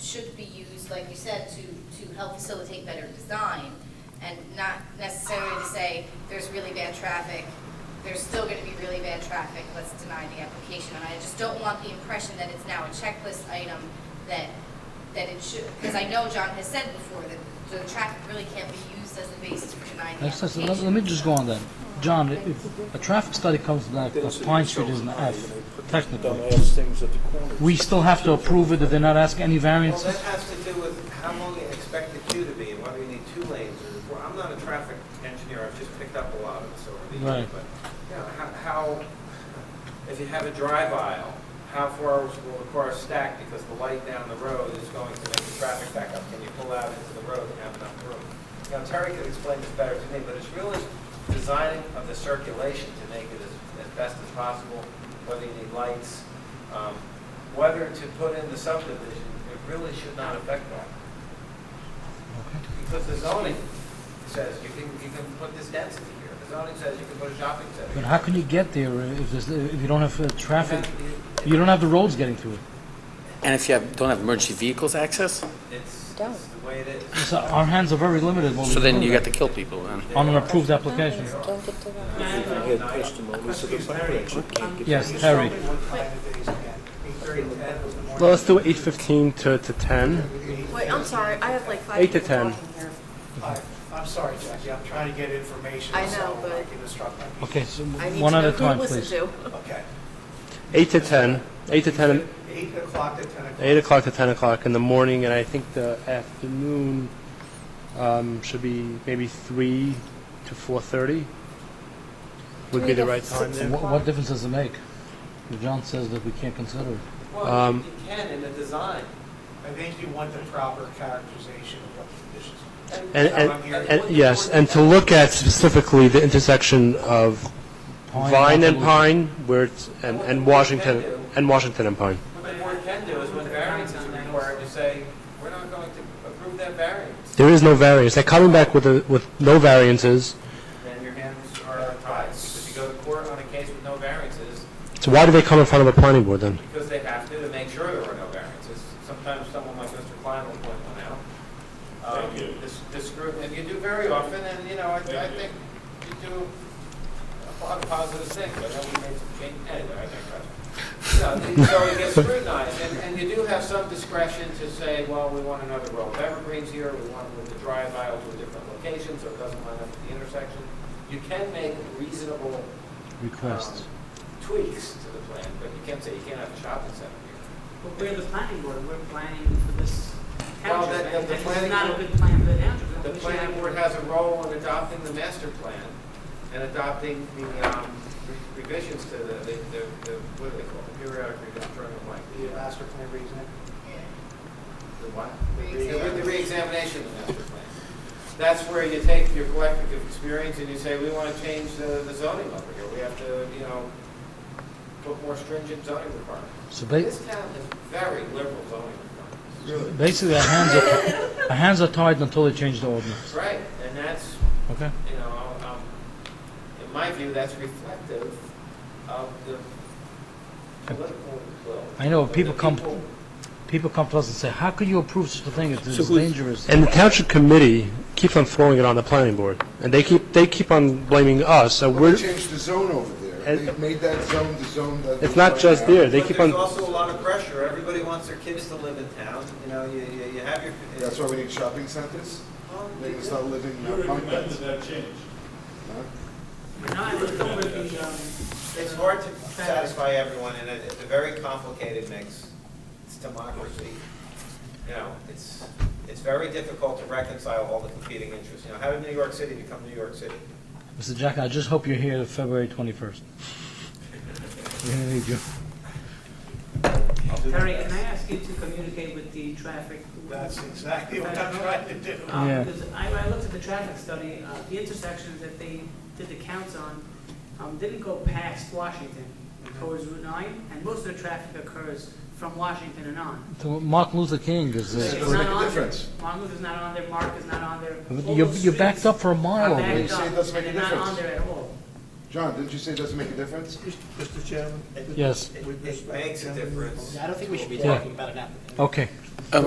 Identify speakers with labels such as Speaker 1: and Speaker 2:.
Speaker 1: should be used, like you said, to, to help facilitate better design and not necessarily to say, there's really bad traffic, there's still gonna be really bad traffic, let's deny the application. And I just don't want the impression that it's now a checklist item that, that it should, because I know John has said before that the traffic really can't be used as the basis for denying the
Speaker 2: That's, that's,
Speaker 1: application.
Speaker 2: let, let me just go on then. John, if- if a traffic study comes back that Pine Street is an F, technically, we still have to approve it if they're not asking any
Speaker 3: Well,
Speaker 2: variances?
Speaker 3: that has to do with how long you expect the queue to be, and whether you need two lanes or four. I'm not a traffic engineer, I've just picked up a lot of this over the
Speaker 2: Right.
Speaker 3: years. But, you know, how- how, if you have a drive aisle, how far will the car stack because the light down the road is going to make the traffic back up? Can you pull out into the road and have enough room? Now, Terry could explain this better to me, but it's really designing of the circulation to make it as, as best as possible, whether you need lights, um, whether to put in the subdivision, it really should not affect that. Because the zoning says you can, you can put this density here. The zoning says you can put a shopping center.
Speaker 2: But
Speaker 3: here.
Speaker 2: how can you get there if there's, if you don't have uh, traffic?
Speaker 3: It-
Speaker 2: You don't have the roads getting through it.
Speaker 4: And if you have, don't have emergency vehicles access,
Speaker 3: It's, it's
Speaker 5: Don't.
Speaker 3: the way it is.
Speaker 2: So our hands are very limited. when we
Speaker 4: so then
Speaker 2: do
Speaker 4: you
Speaker 2: that.
Speaker 4: got to kill people then.
Speaker 2: On an approved application.
Speaker 5: Don't get to that.
Speaker 6: had testimony, so the fire actually can't get.
Speaker 2: Yes, Terry.
Speaker 7: Well, let's do eight fifteen to, to ten.
Speaker 5: Wait, I'm sorry, I have like five
Speaker 7: Eight to
Speaker 5: people
Speaker 7: ten.
Speaker 5: talking here.
Speaker 6: I'm sorry, Jackie, I'm trying to get information, so
Speaker 5: I know, but-
Speaker 6: I can instruct my people.
Speaker 2: Okay, so
Speaker 5: I need
Speaker 2: one
Speaker 5: to
Speaker 2: at
Speaker 5: know
Speaker 2: a
Speaker 5: who to
Speaker 2: time,
Speaker 5: listen
Speaker 2: please.
Speaker 5: to.
Speaker 6: Okay.
Speaker 7: Eight to ten. Eight to ten.
Speaker 6: Eight o'clock to ten o'clock.
Speaker 7: Eight o'clock to ten o'clock in the morning, and I think the afternoon um, should be maybe three to four thirty. Would be
Speaker 5: Three
Speaker 7: the
Speaker 5: to
Speaker 7: right time
Speaker 5: six
Speaker 7: there.
Speaker 2: What, what difference does it make? If John says that we can't consider it.
Speaker 3: Well, you
Speaker 7: Um,
Speaker 3: can in the design.
Speaker 6: I think you want the proper characterization of what conditions.
Speaker 7: And,
Speaker 6: So I'm
Speaker 7: and,
Speaker 6: here-
Speaker 7: and yes, and to look at specifically the intersection of
Speaker 2: Pine,
Speaker 7: Vine and
Speaker 2: Appaloosa.
Speaker 7: Pine, where it's and, and Washington and Washington and Pine.
Speaker 3: What the board can do is when variance is required, to say, we're not going to approve that variance.
Speaker 7: There is no variance. They're coming back with a, with no variances.
Speaker 3: Then your hands are tied, because you go to court on a case with no variances,
Speaker 7: So why do they come in front of a planning board then?
Speaker 3: because they have to to make sure there are no variances. Sometimes someone like Mr. Klein will point one out. Um,
Speaker 8: Thank you.
Speaker 3: This, this group, and you do very often, and, you know, I, I
Speaker 8: Thank you.
Speaker 3: think you do a lot of positive things, I know we made some change, anyway, I think, right? So it gets scrutinized, and, and you do have some discretion to say, well, we want another row of evergreens here, we want to move the drive aisle to a different location, so it doesn't line up at the intersection. You can make reasonable
Speaker 2: Requests.
Speaker 3: um, Tweaks to the plan, but you can't say you can't have a shopping center here.
Speaker 9: Well, we're the planning board, we're planning for this
Speaker 3: Well,
Speaker 9: township,
Speaker 3: that- that
Speaker 9: and
Speaker 3: the
Speaker 9: this
Speaker 3: planning
Speaker 9: is not a
Speaker 3: board-
Speaker 9: good plan for the township.
Speaker 3: The
Speaker 9: We should
Speaker 3: planning
Speaker 9: have-
Speaker 3: board has a role in adopting the master plan and adopting the um, re- revisions to the, the, the- the- what do they call it, periodic revision, drawing of like,
Speaker 6: The master plan reasoning.
Speaker 3: the what?
Speaker 6: Re-exam.
Speaker 3: The the reexamination of the master plan. That's where you take your collective experience and you say, we want to change the the zoning over here. We have to, you know, put more stringent zoning requirements.
Speaker 2: So ba-
Speaker 3: This town has very liberal zoning requirements.
Speaker 2: basically, our hands are, our hands are tied until they change the ordinance,
Speaker 3: Right, and that's,
Speaker 2: okay?
Speaker 3: you know, um, in my view, that's reflective of the political will.
Speaker 2: I know,
Speaker 3: of the
Speaker 2: people come-
Speaker 3: people.
Speaker 2: People come to us and say, how could you approve such a thing? It's it's
Speaker 7: who's-
Speaker 2: dangerous.
Speaker 7: And the township committee keeps on throwing it on the planning board, and they keep, they keep on blaming us, so
Speaker 10: Well,
Speaker 7: we're,
Speaker 10: they changed the zone over there.
Speaker 7: And-
Speaker 10: They made that zone the zone that.
Speaker 7: it's not just there, they
Speaker 3: But
Speaker 7: keep
Speaker 3: there's
Speaker 7: on,
Speaker 3: also a lot of pressure. Everybody wants their kids to live in town, you know, you, you- you have your.
Speaker 10: That's why we need shopping centers.
Speaker 3: Well,
Speaker 10: They can start living
Speaker 8: You
Speaker 10: in uh, apartments.
Speaker 8: recommended that change.
Speaker 9: No, I looked over the, um,
Speaker 3: It's hard to satisfy everyone, and it- it's a very complicated mix. It's democracy. You know, it's, it's very difficult to reconcile all the competing interests. You know, how did New York City become New York City?
Speaker 2: Mr. Jack, I just hope you're here February 21st. We're gonna need you.
Speaker 9: Terry, can I ask you to communicate with the traffic?
Speaker 6: That's exactly what I'm trying to do.
Speaker 9: Um,
Speaker 2: Yeah.
Speaker 9: Because I, I looked at the traffic study, uh, the intersections that they did the counts on, um, didn't go past Washington
Speaker 6: Mm-hmm.
Speaker 9: towards Route nine, and most of the traffic occurs from Washington and on.
Speaker 2: So Martin Luther King is,
Speaker 10: It's
Speaker 2: uh,
Speaker 9: It's
Speaker 10: gonna
Speaker 9: not
Speaker 10: make a
Speaker 9: on there.
Speaker 10: difference.
Speaker 9: Martin Luther's not on there, Mark is not on there. All
Speaker 2: you're,
Speaker 9: those
Speaker 2: you're backed
Speaker 9: streets
Speaker 2: up for a
Speaker 9: are
Speaker 2: mile.
Speaker 9: backed
Speaker 2: over
Speaker 10: You say it
Speaker 9: up,
Speaker 10: doesn't make a
Speaker 9: and they're not
Speaker 10: difference.
Speaker 9: on there at all.
Speaker 10: John, didn't you say it doesn't make a difference?
Speaker 6: Mr. Chairman?
Speaker 2: Yes.
Speaker 3: It- It makes a difference.
Speaker 6: I don't think we should be
Speaker 2: Yeah. Okay.
Speaker 4: Uh,